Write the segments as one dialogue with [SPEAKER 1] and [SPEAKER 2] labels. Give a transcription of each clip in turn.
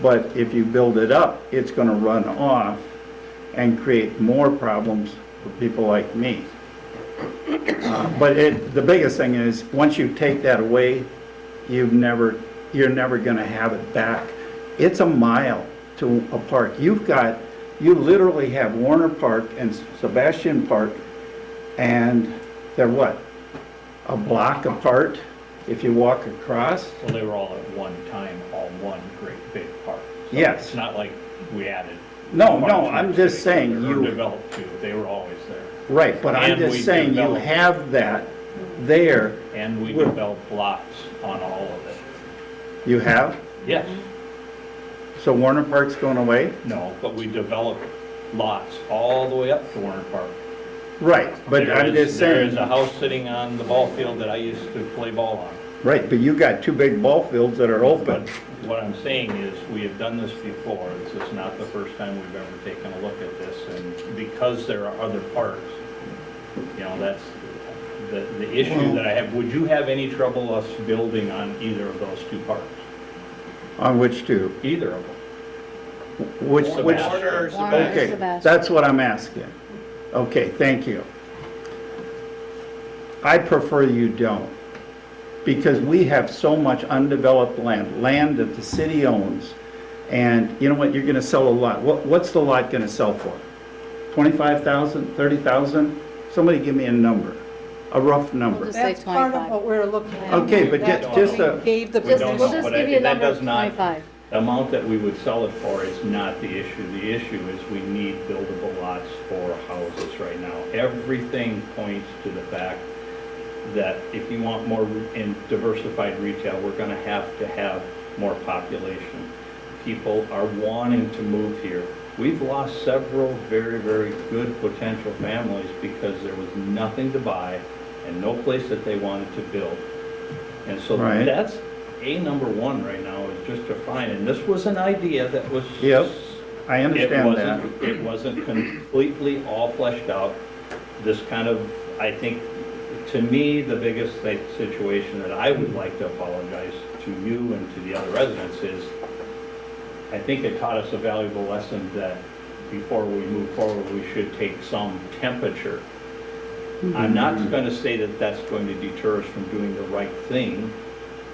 [SPEAKER 1] But if you build it up, it's gonna run off and create more problems for people like me. Uh, But it, the biggest thing is, once you take that away, you've never, you're never gonna have it back. It's a mile to a park. You've got, you literally have Warner Park and Sebastian Park, and they're what? A block apart if you walk across?
[SPEAKER 2] Well, they were all at one time, all one great big park. So
[SPEAKER 1] Yes.
[SPEAKER 2] It's not like we added.
[SPEAKER 1] No,
[SPEAKER 2] parks
[SPEAKER 1] no, I'm
[SPEAKER 2] next to
[SPEAKER 1] just
[SPEAKER 2] each other
[SPEAKER 1] saying
[SPEAKER 2] or
[SPEAKER 1] you-
[SPEAKER 2] Developed two, they were always there.
[SPEAKER 1] Right, but I'm
[SPEAKER 2] And we
[SPEAKER 1] just saying you
[SPEAKER 2] develop-
[SPEAKER 1] have that there.
[SPEAKER 2] And we
[SPEAKER 1] Well-
[SPEAKER 2] developed blocks on all of it.
[SPEAKER 1] You have?
[SPEAKER 2] Yes,
[SPEAKER 1] So Warner Park's going away?
[SPEAKER 2] no, but we developed lots all the way up to Warner Park.
[SPEAKER 1] Right, but
[SPEAKER 2] There
[SPEAKER 1] I'm
[SPEAKER 2] is-
[SPEAKER 1] just
[SPEAKER 2] There is
[SPEAKER 1] saying,
[SPEAKER 2] a house sitting on the ball field that I used to play ball on.
[SPEAKER 1] right, but you got two big ball fields that are
[SPEAKER 2] But
[SPEAKER 1] open.
[SPEAKER 2] what I'm saying is, we have done this before, this is not the first time we've ever taken a look at this, and because there are other parks, you know, that's the, the issue that I have, would you have any trouble us building on either of those two parks?
[SPEAKER 1] On which two?
[SPEAKER 2] Either of them?
[SPEAKER 1] Which, which?
[SPEAKER 2] Warner or
[SPEAKER 3] Warner.
[SPEAKER 2] Sebastian?
[SPEAKER 1] Okay,
[SPEAKER 3] Sebastian.
[SPEAKER 1] that's what I'm asking. Okay, thank you. I prefer you don't, because we have so much undeveloped land, land that the city owns. And you know what, you're gonna sell a lot. What, what's the lot gonna sell for? Twenty-five thousand, thirty thousand? Somebody give me a number, a rough number.
[SPEAKER 3] We'll just- say
[SPEAKER 4] That's part of
[SPEAKER 3] 25.
[SPEAKER 4] what we're looking at.
[SPEAKER 1] Okay, but
[SPEAKER 4] That's
[SPEAKER 2] ju-
[SPEAKER 4] what
[SPEAKER 2] just uh,
[SPEAKER 4] we
[SPEAKER 1] a-
[SPEAKER 4] Gave the
[SPEAKER 2] We don't
[SPEAKER 3] Just, we'll
[SPEAKER 2] know,
[SPEAKER 3] just
[SPEAKER 2] but
[SPEAKER 3] give
[SPEAKER 2] I-
[SPEAKER 3] you a
[SPEAKER 2] that
[SPEAKER 3] number of
[SPEAKER 2] does not-
[SPEAKER 3] twenty-five.
[SPEAKER 2] The amount that we would sell it for is not the issue. The issue is we need buildable lots for houses right now. Everything points to the fact that if you want more re- and diversified retail, we're gonna have to have more population. People are wanting to move here. We've lost several very, very good potential families because there was nothing to buy and no place that they wanted to build. And so
[SPEAKER 1] Right.
[SPEAKER 2] that's a number one right now is just to find, and this was an idea that was.
[SPEAKER 1] Yep, I
[SPEAKER 2] It
[SPEAKER 1] understand that.
[SPEAKER 2] wasn't, it wasn't completely all fleshed out. This kind of, I think, to me, the biggest thi- situation that I would like to apologize to you and to the other residents is, I think it taught us a valuable lesson that before we move forward, we should take some temperature. I'm not going to say that that's going to deter us from doing the right thing,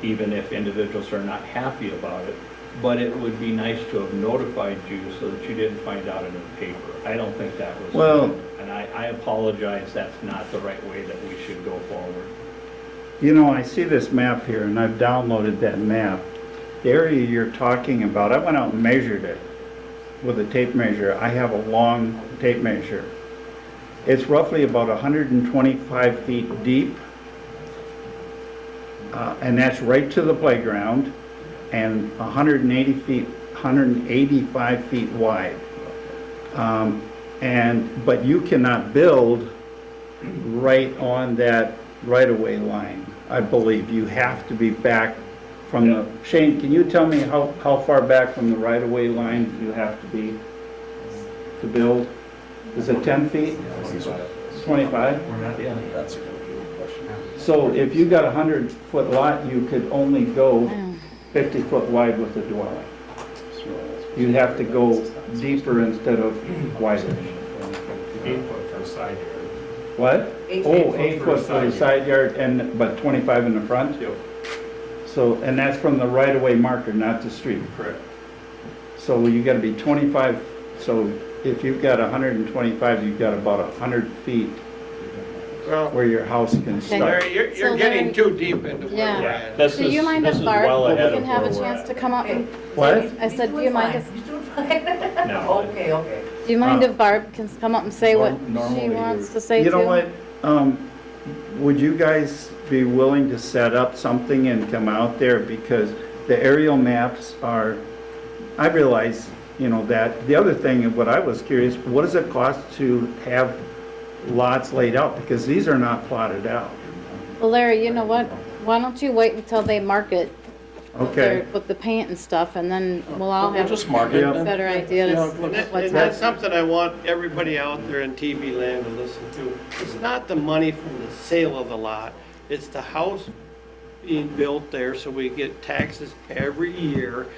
[SPEAKER 2] even if individuals are not happy about it, but it would be nice to have notified you so that you didn't find out in the paper. I don't think that was.
[SPEAKER 1] Well-
[SPEAKER 2] good, And I, I apologize, that's not the right way that we should go forward.
[SPEAKER 1] You know, I see this map here, and I've downloaded that map. The area you're talking about, I went out and measured it with a tape measure. I have a long tape measure. It's roughly about 125 feet deep, uh, and that's right to the playground, and 180 feet, 185 feet wide. Um, And, but you cannot build right on that right-of-way line, I believe. You have to be back from the, Shane, can you tell me how, how far back from the right-of-way line you have to be to build? Is it 10 feet, 25?
[SPEAKER 2] Yeah.
[SPEAKER 5] That's a good question.
[SPEAKER 1] So if you got a 100-foot lot, you could only go 50-foot wide with the dwelling. You'd have to go deeper instead of wider.
[SPEAKER 6] Eight foot for a side yard.
[SPEAKER 1] What?
[SPEAKER 6] Eight-
[SPEAKER 1] Oh,
[SPEAKER 6] eight
[SPEAKER 1] eight
[SPEAKER 6] foot for a
[SPEAKER 1] foot for the
[SPEAKER 6] side
[SPEAKER 1] side yard and, but 25 in the front? So, and that's from the right-of-way marker, not the street.
[SPEAKER 6] Correct.
[SPEAKER 1] So you gotta be 25, so if you've got 125, you've got about 100 feet
[SPEAKER 7] Well,
[SPEAKER 1] where your house can start.
[SPEAKER 7] Larry, you're,
[SPEAKER 3] So
[SPEAKER 7] you're getting
[SPEAKER 3] Larry-
[SPEAKER 7] too deep into where
[SPEAKER 3] Yeah.
[SPEAKER 7] we're
[SPEAKER 2] Yeah,
[SPEAKER 7] at.
[SPEAKER 2] This
[SPEAKER 3] Do
[SPEAKER 2] is,
[SPEAKER 3] you mind
[SPEAKER 2] this
[SPEAKER 3] if
[SPEAKER 2] is
[SPEAKER 3] Barb
[SPEAKER 2] well ahead
[SPEAKER 3] can
[SPEAKER 2] of
[SPEAKER 3] have
[SPEAKER 2] where
[SPEAKER 3] a
[SPEAKER 2] we're
[SPEAKER 3] chance to
[SPEAKER 2] at.
[SPEAKER 3] come up and,
[SPEAKER 1] What?
[SPEAKER 3] I said, do you mind if,
[SPEAKER 2] No.
[SPEAKER 4] Okay, okay.
[SPEAKER 3] do you mind
[SPEAKER 1] Uh,
[SPEAKER 3] if Barb can come up and say what
[SPEAKER 2] Norm- normally
[SPEAKER 3] she
[SPEAKER 2] you're-
[SPEAKER 3] wants to say too?
[SPEAKER 1] You know what? Um, Would you guys be willing to set up something and come out there? Because the aerial maps are, I realize, you know, that. The other thing, and what I was curious, what does it cost to have lots laid out? Because these are not plotted out.
[SPEAKER 3] Well, Larry, you know what? Why don't you wait until they market with
[SPEAKER 1] Okay.
[SPEAKER 3] their- with the paint and stuff and then we'll all
[SPEAKER 5] We'll
[SPEAKER 3] have
[SPEAKER 5] just
[SPEAKER 3] a
[SPEAKER 5] mark it.
[SPEAKER 1] Yeah.
[SPEAKER 5] and-
[SPEAKER 3] better idea
[SPEAKER 5] Yeah,
[SPEAKER 3] to
[SPEAKER 5] look,
[SPEAKER 7] And that-
[SPEAKER 3] what's
[SPEAKER 7] and
[SPEAKER 3] up.
[SPEAKER 7] that's something I want everybody out there in TV land to listen to. It's not the money from the sale of the lot, it's the house being built there, so we get taxes every year